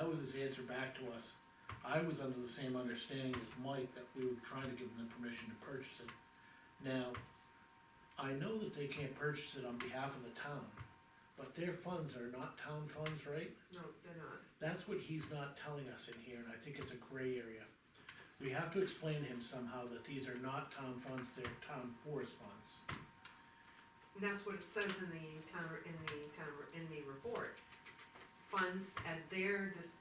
was his answer back to us. I was under the same understanding as Mike that we were trying to give them the permission to purchase it. Now, I know that they can't purchase it on behalf of the town, but their funds are not town funds, right? No, they're not. That's what he's not telling us in here, and I think it's a gray area. We have to explain to him somehow that these are not town funds, they're town forest funds. And that's what it says in the town, in the town, in the report. Funds at their, dis-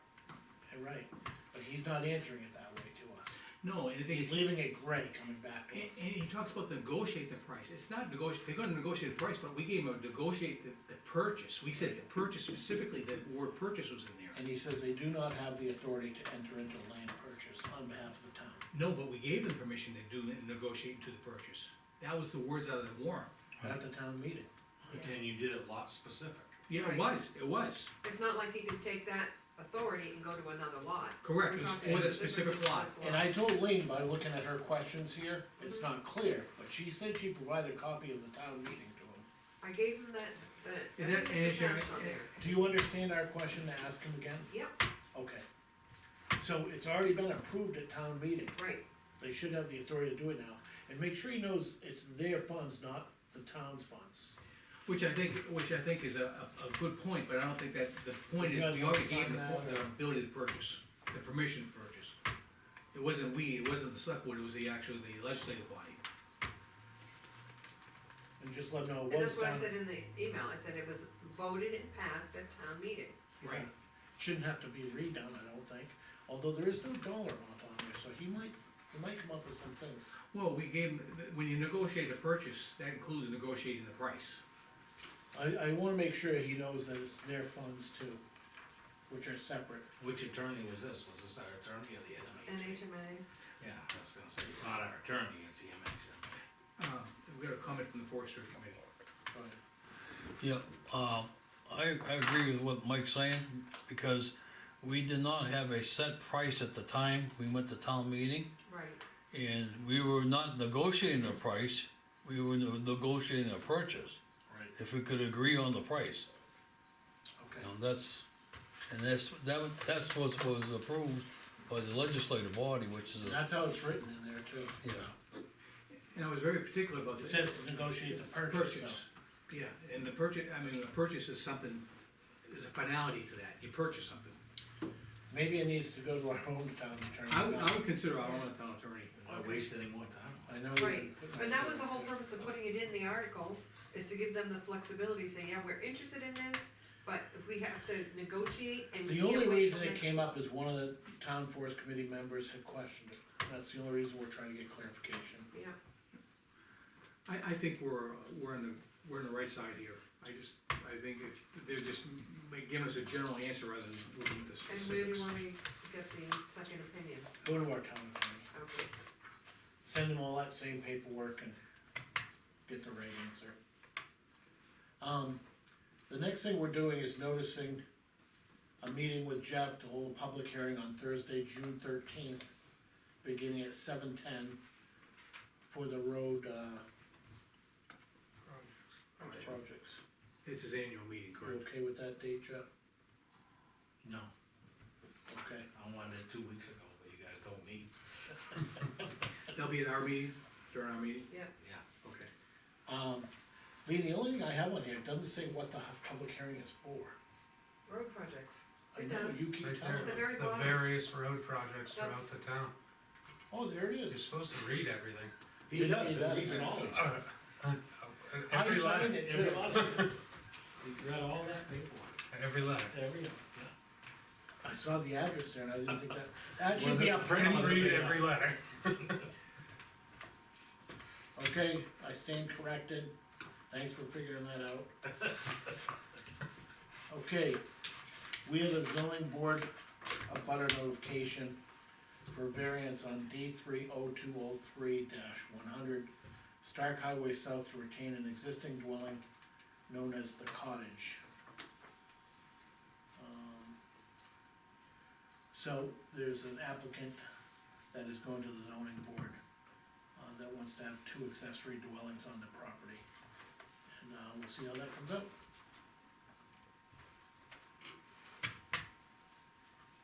You're right, but he's not answering it that way to us. No, and the thing He's is, leaving it gray coming back to and, us. and he talks about negotiate the price, it's not negotiate, they're gonna negotiate the price, but we gave him a negotiate the, the purchase, we said the purchase specifically, the word purchase was in there. And he says they do not have the authority to enter into land purchase on behalf of the town. No, but we gave them permission to do, negotiate to the purchase, that was the words out of the warrant. At the town meeting, And you did it lot specific. Yeah, Right. it was, it was, it's not like he could take that authority and go to another lot. Correct, We're it was talking for that specifically specific lot. this and I told Lean by looking at her questions here, it's not clear, but she said she provided a copy of the town meeting to him. I gave him that, that. Is that- and it's it's your- attached on there. Do you understand our question to ask him again? Yep, Okay. So it's already been approved at town meeting, right, they should have the authority to do it now, and make sure he knows it's their funds, not the town's funds. which I think, which I think is a, a, a good point, but I don't think that, the point You is, guys we wanna already gave sign the, po- that, the or- ability to purchase, the permission to purchase. It wasn't we, it wasn't the select board, it was the actual, the legislative body. And just let them know it and was that's what I done. said in the email, I said it was voted and passed at town meeting. Right. Shouldn't have to be redone, I don't think, although there is no dollar amount on there, so he might, he might come up with some things. Well, we gave, them- when you negotiate a purchase, that includes negotiating the price. I, I wanna make sure he knows that it's their funds too, which are separate. Which attorney was this? Was this our attorney or the NMHA? NHMA, Yeah, I was gonna say, it's not our attorney, it's the MHMA. Uh, we got a comment from the forestry committee. but- Yeah, uh, I, I agree with what Mike's saying, because we did not have a set price at the time we went to town meeting, right, and we were not negotiating a price, we were negotiating a purchase, Right. if we could agree on the price. Okay, You know, that's, and that's, that, was- that's what was approved by the legislative body, which is, a- that's how it's written in there too. yeah. And I was very particular about the. It says to negotiate the purchase, so. Purchase, yeah, and the purchase, I mean, the purchase is something, there's a finality to that, you purchase something. Maybe it needs to go to our own town attorney. I would, I would consider our own town attorney. Why waste any more time? I know. we- right, and that was the whole purpose of putting it in the article, is to give them the flexibility, say, yeah, we're interested in this, but if we have to negotiate and. we The can't only wait reason till it next- came up is one of the town forest committee members had questioned it, that's the only reason we're trying to get clarification. Yeah, I, I think we're, we're in the, we're in the right side here. I just, I think if, they're just ma- giving us a general answer rather than moving to the and where do specifics. you want me to get the second opinion? Go to our town attorney, Okay, send them all that same paperwork and get the right answer. Um, the next thing we're doing is noticing a meeting with Jeff to hold a public hearing on Thursday, June thirteenth, beginning at seven ten for the road, uh, projects. It's his annual meeting, You correct? okay with that date, Jeff? No, Okay, I wanted it two weeks ago, but you guys don't meet. They'll be at our meeting, during our meeting? yeah, Yeah. Okay. um, Lee, the only thing I have on here, it doesn't say what the hu- public hearing is for. road projects, I It know, does. you keep Right telling me. the there. very The bottom. various road projects throughout That's- the town. Oh, there it You're is. supposed to read everything. He does, He he reads it all. I Every signed letter, it too. He read all that paperwork. every letter. Every. I saw the address there and I didn't think that, that should be up front. Didn't read every letter. Okay, I stand corrected. Thanks for figuring that out. Okay, we have a zoning board, a butter notification for variance on D three oh two oh three one hundred. Stark Highway South to retain an existing dwelling known as the cottage. Um, So there's an applicant that is going to the zoning board uh, that wants to have two accessory dwellings on the property. And, uh, we'll see how that comes out.